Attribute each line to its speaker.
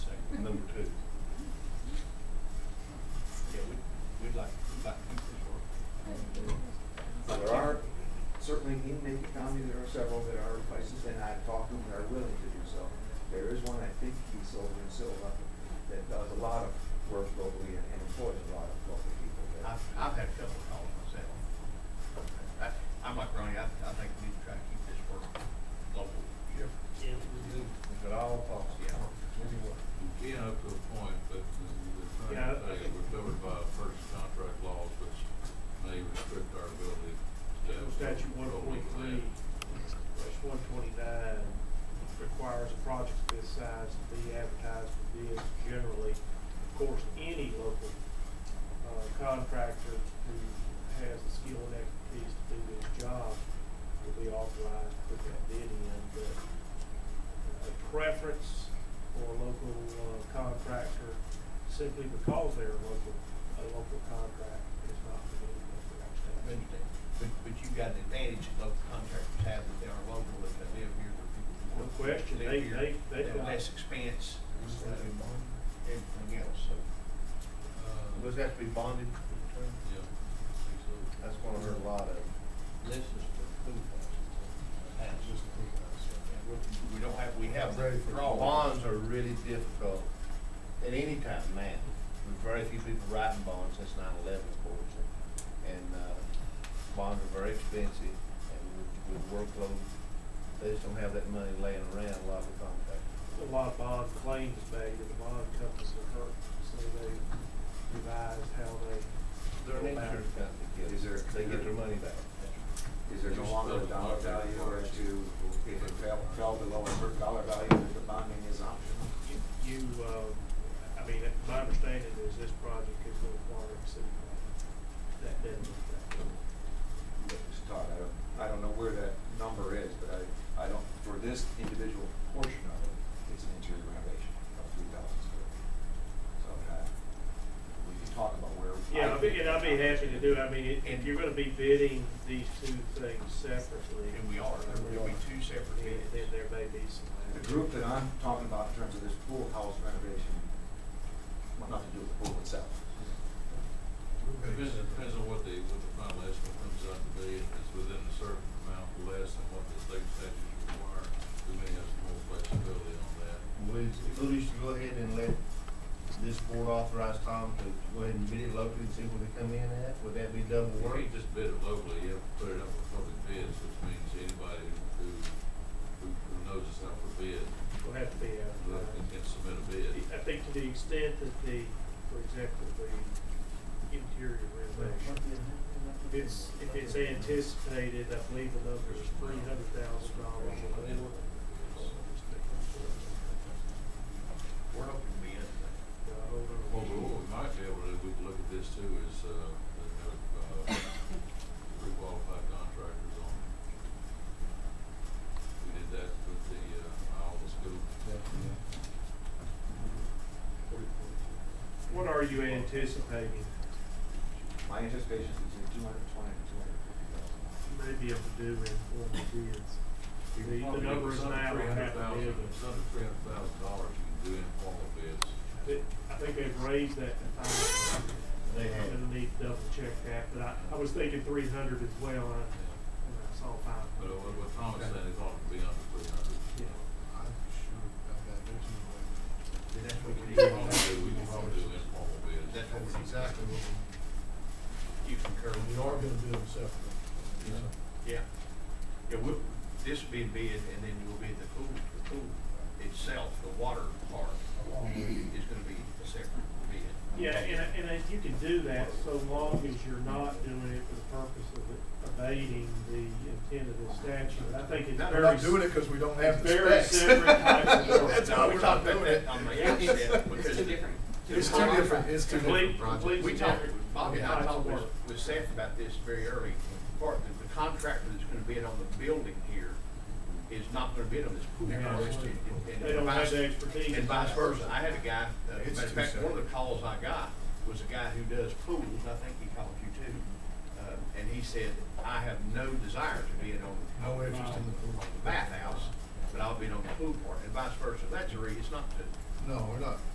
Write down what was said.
Speaker 1: number two. Yeah, we'd, we'd like, we'd like to keep this work.
Speaker 2: But there are, certainly in Macon County, there are several that are places, and I've talked to them that are willing to do so. There is one, I think he's over in Silva, that does a lot of work locally and and employs a lot of local people. that-
Speaker 1: I've, I've had a couple of calls myself. I, I'm like Ronnie, I, I think we need to try to keep this work local.
Speaker 3: Yeah, we do.
Speaker 1: But all possible.
Speaker 4: Being up to a point, but the, the
Speaker 3: Yeah.
Speaker 4: thing is, we're covered by first contract laws, which may restrict our ability to. have
Speaker 3: Statute one
Speaker 4: control over
Speaker 3: point three,
Speaker 4: that.
Speaker 3: one twenty-nine requires a project of this size to be advertised for bids generally. Of course, any local uh, contractor who has the skill and expertise to do this job will be authorized to put that bid in, but a preference for a local uh, contractor simply because they're a local, a local contractor is not permitted under our
Speaker 1: But,
Speaker 3: statute.
Speaker 1: but, but you've got an advantage that local contractors have that they are local, if they live here, the people who
Speaker 3: No
Speaker 1: work.
Speaker 3: question.
Speaker 1: live
Speaker 3: They-
Speaker 1: here,
Speaker 3: they- they've
Speaker 1: have
Speaker 3: got-
Speaker 1: Less expense, uh, everything else, so.
Speaker 4: Uh,
Speaker 2: Does that have to be bonded?
Speaker 4: Yeah. I think so.
Speaker 2: That's one I've heard a lot of.
Speaker 1: This is the food house. Just the food house. We don't have, we have
Speaker 5: Ready for
Speaker 1: draw
Speaker 6: Bonds are really difficult at any time now. There's very few people writing bonds since 9/11, of course. And uh, bonds are very expensive and with- with workload, they just don't have that money laying around a lot of the contractors.
Speaker 3: a lot of bond claims made, and the bond companies are hurt, so they revised how they.
Speaker 6: They're an insurance company, kid.
Speaker 2: Is there-
Speaker 6: They get their money back.
Speaker 2: Is there no longer a dollar value or to, if it fell, fell below a certain dollar value, the bonding is optional?
Speaker 3: You- You, uh, I mean, my understanding is this project is going to require a city bond. That doesn't.
Speaker 2: that was taught. I don't, I don't know where that number is, but I, I don't, for this individual portion of it, it's an interior renovation of three thousand square feet. So, uh, we can talk about where.
Speaker 3: Yeah, I'd be, and I'd be happy to do, it. I mean, if- if
Speaker 1: And-
Speaker 3: you're gonna be bidding these two things separately,
Speaker 1: And we are, there will be two separate
Speaker 3: then,
Speaker 1: bids.
Speaker 3: then there may be some.
Speaker 2: The group that I'm talking about in terms of this pool house renovation, well, nothing to do with the pool itself.
Speaker 4: Depends, depends on what the, what the final estimate comes out to be, if it's within a certain amount less than what the state statutes require, we may have some more flexibility on that.
Speaker 6: We, we should go ahead and let this board authorize Tom to go ahead and bid it locally and see what they come in at. Would that be double
Speaker 4: You can't just bid it locally, you have to put it up for public bids, which means anybody who, who, who knows it's out for bid,
Speaker 3: Will have to be uh,
Speaker 4: will have
Speaker 3: advertised.
Speaker 4: to- can submit a bid.
Speaker 3: I think to the extent that the, for example, the interior renovation, if it's, if it's anticipated, I believe the number is three hundred thousand dollars or more.
Speaker 1: We're hoping to be in there.
Speaker 3: Uh,
Speaker 4: Well,
Speaker 3: hold
Speaker 4: but what we might be able to, do, we can look at this too, is, uh, they have, uh, pre-qualified contractors on. We did that with the, uh, Iowa School.
Speaker 3: on. What are you anticipating?
Speaker 2: My anticipation is between two hundred and twenty and two hundred and fifty thousand.
Speaker 3: You may be able to do in form of bids.
Speaker 4: You
Speaker 3: The- the
Speaker 4: can probably do
Speaker 3: number is
Speaker 4: some
Speaker 3: now
Speaker 4: three hundred
Speaker 3: half a
Speaker 4: thousand,
Speaker 3: million.
Speaker 4: some three hundred thousand dollars you can do informal bids.
Speaker 3: It- I think they've raised that to five.
Speaker 6: They have.
Speaker 3: I'm gonna need to double check that, but I, I was thinking three hundred as well, and I, and I saw five.
Speaker 4: But uh, what, what Tom is saying, it's ought to be under three hundred.
Speaker 3: Yeah.
Speaker 1: That's what we
Speaker 4: We
Speaker 1: need.
Speaker 4: can probably do, we can probably do informal bids.
Speaker 1: That's what we need.
Speaker 5: Exactly what
Speaker 1: You concur.
Speaker 5: we, we are gonna do them separately.
Speaker 4: Yeah.
Speaker 1: Yeah. Yeah, we, this will be a bid, and then will be the pool, the pool itself, the water part is gonna be a separate bid.
Speaker 3: Yeah, and, and if you can do that so long as you're not doing it for the purpose of abating the intent of the statute. I think it's
Speaker 1: Not-
Speaker 3: very.
Speaker 5: We're not doing it because we don't have the
Speaker 3: Very
Speaker 5: specs.
Speaker 3: separate types of work.
Speaker 5: That's
Speaker 1: No,
Speaker 5: how
Speaker 1: we
Speaker 5: we're
Speaker 1: talked
Speaker 5: not
Speaker 1: about
Speaker 5: doing
Speaker 1: that
Speaker 5: it.
Speaker 1: on the outset,
Speaker 7: It's
Speaker 1: because.
Speaker 7: two different.
Speaker 5: It's two different, it's two
Speaker 3: Complete-
Speaker 5: different projects.
Speaker 3: complete-
Speaker 1: We talked, Bobby and I
Speaker 3: Yeah.
Speaker 1: talked with, with Seth about this very early, part, that the contractor that's gonna bid on the building here is not gonna bid on this pool.
Speaker 3: Yeah.
Speaker 1: first, and- and-
Speaker 3: They don't have the expertise.
Speaker 1: And vice versa, I had a guy, uh,
Speaker 5: It's
Speaker 1: matter of
Speaker 5: too
Speaker 1: fact, one of
Speaker 5: separate.
Speaker 1: the calls I got was a guy who does pools, I think he called you too. Uh, and he said, I have no desire to bid on
Speaker 5: No interest in the pool.
Speaker 1: the bathhouse, but I'll bid on the pool part, and vice versa, that's a re, it's not to,
Speaker 5: No, we're not,